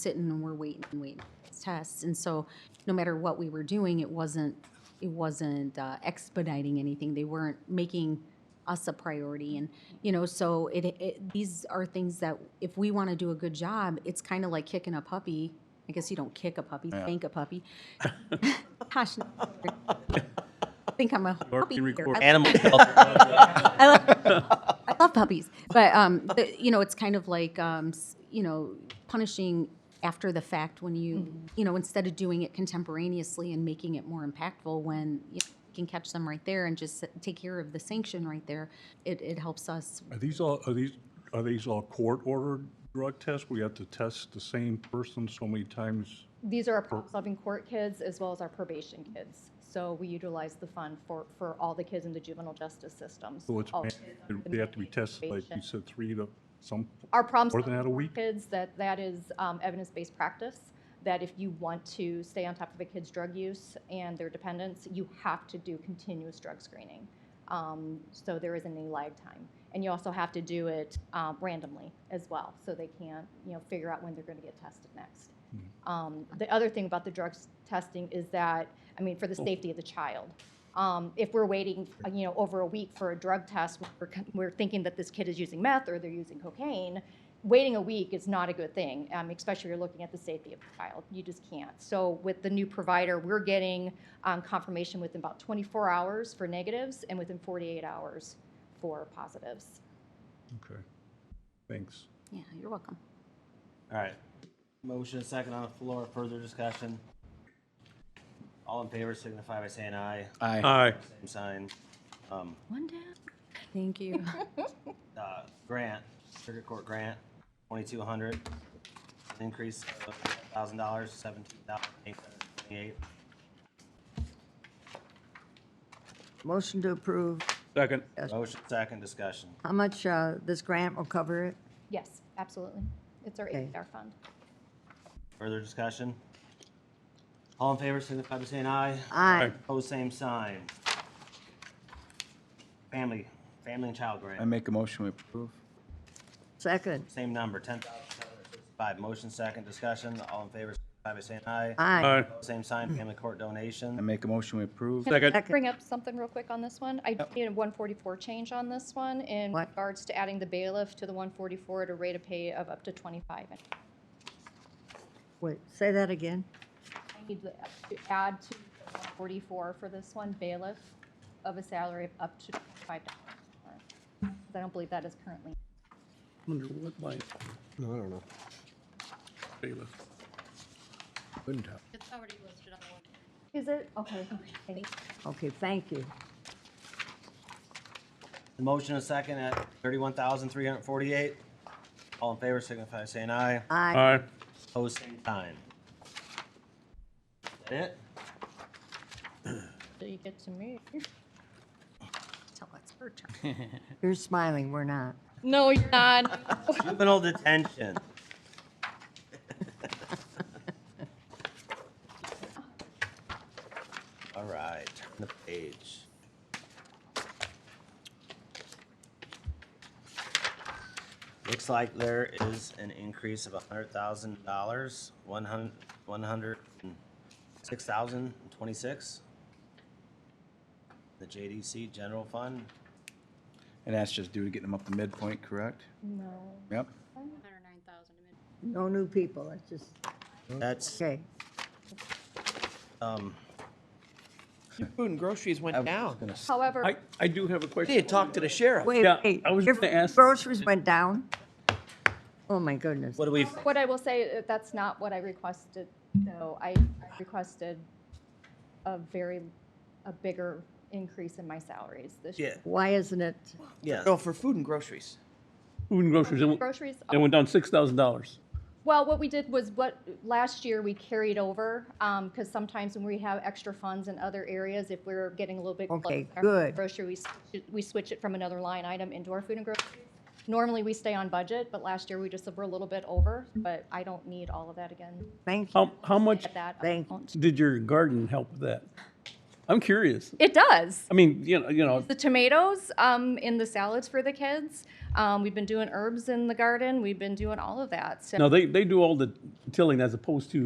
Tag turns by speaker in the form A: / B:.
A: sitting and we're waiting and waiting for these tests. And so no matter what we were doing, it wasn't, it wasn't uh, expediting anything. They weren't making us a priority. And, you know, so it, it, these are things that if we want to do a good job, it's kind of like kicking a puppy. I guess you don't kick a puppy, spank a puppy. Gosh, no. I think I'm a puppy.
B: being
A: here.
B: recorded.
A: I-
C: Animal health,
A: I love, I love puppies, but um, the, you know, it's kind of like um, s- you know, punishing after the fact when you you know instead of doing it contemporaneously and making it more impactful when you can catch them right there and just s- take care of the sanction right there. It it helps us.
D: Are these all, are these, are these all court-ordered drug tests? We have to test the same person so many times?
E: These are our problem-solving court kids as well as our probation kids. So we utilize the fund for, for all the kids in the juvenile justice systems.
D: So it's,
E: All
D: man-
E: kids are
D: they have to be tested, like you
E: probation.
D: said, three to some,
E: Our problem.
D: more than that a week?
E: Kids, that, that is um, evidence-based practice, that if you want to stay on top of a kid's drug use and their dependence, you have to do continuous drug screening. Um, So there isn't any lag time. And you also have to do it um, randomly as well, so they can't, you know, figure out when they're going to get tested next.
D: Hmm.
E: Um, The other thing about the drug s- testing is that, I mean, for the safety of the child. Um, If we're waiting, uh, you know, over a week for a drug test, we're, con- we're thinking that this kid is using meth or they're using cocaine, waiting a week is not a good thing, um, especially if you're looking at the safety of the child. You just can't. So with the new provider, we're getting um, confirmation within about 24 hours for negatives and within 48 hours for positives.
D: okay, thanks.
A: Yeah, you're welcome.
C: all right. Motion and second on the floor, further discussion. All in favor signify by saying aye.
B: All
F: Aye.
B: right,
C: Same sign. Um,
E: One down.
A: Thank you.
C: uh, grant, circuit court grant, twenty-two hundred. Increase of thousand dollars, seventeen thousand eight hundred twenty-eight.
G: Motion to approve.
B: second.
C: Motion second discussion.
G: How much uh, this grant will cover it?
E: Yes, absolutely. It's our
G: Okay.
E: APR fund.
C: Further discussion? All in favor signify by saying aye.
G: Aye.
C: Pose same sign. Family, family and child grant.
F: I make a motion we approve.
G: Second.
C: Same number, ten thousand seven hundred sixty-five. Motion second, discussion, all in favor, signify by saying aye.
G: Aye.
B: Aye.
C: Same sign, family court
F: I
C: donation.
F: make a motion we approve.
B: Second,
G: Second.
E: Bring up something real quick on this one. I did a 144 change on this one in
G: What?
E: regards to adding the bailiff to the 144 at a rate of pay of up to 25. And
G: Wait, say that again.
E: I need to add to the 144 for this one, bailiff of a salary of up to $25. Because I don't believe that is currently.
H: Wonder what line? No, I don't know.
B: bailiff.
H: Couldn't tell.
I: It's already listed on the one.
E: Is it? Okay. thank you.
G: Okay, thank you.
C: The motion is second at thirty-one thousand three hundred forty-eight. All in favor, signify by saying aye.
B: All
G: Aye.
B: right,
C: Pose same sign. That it?
E: So you get to me.
A: Tell that's her turn.
G: You're smiling, we're not.
I: No, you're not.
C: Juvenile detention. All right, turn the page. Looks like there is an increase of hundred thousand dollars, one hundred, one hundred and six thousand and twenty-six. The JDC General Fund,
F: And that's just due to getting them up to midpoint, correct?
E: No.
F: Yep.
I: Hundred nine thousand.
G: No new people, that's just,
C: that's,
G: okay.
C: um,
J: Food and groceries went down.
E: However,
B: I, I do have a
J: They had
B: question.
J: talked to the sheriff.
G: Wait,
B: Yeah,
G: wait,
B: I was
G: your
B: gonna ask-
G: Groceries went down? Oh, my goodness.
C: what do we?
E: what I will say, uh, that's not what I requested, though. I I requested a very, a bigger increase in my salaries this year.
C: Yeah,
G: Why isn't it?
C: yeah.
J: No, for food and groceries.
B: Food and groceries, and
E: Groceries,
B: it went down six thousand dollars.
E: Well, what we did was what, last year we carried over, because sometimes when we have extra funds in other areas, if we're getting a little bit. close
G: Okay,
E: to our
G: good.
E: Grocery, we, switch it- we switch it from another line item into our food and grocery. Normally, we stay on budget, but last year we just were a little bit over, but I don't need all of that again.
B: Um,
G: Thank you.
B: How, how much
E: At that
G: Thank-
E: amount.
B: did your garden help with that? I'm curious.
E: It does.
B: I mean, you know, you know,
E: The tomatoes um, in the salads for the kids. Um, we've been doing herbs in the garden. We've been doing all of that. So
B: now they, they do all the tilling as opposed to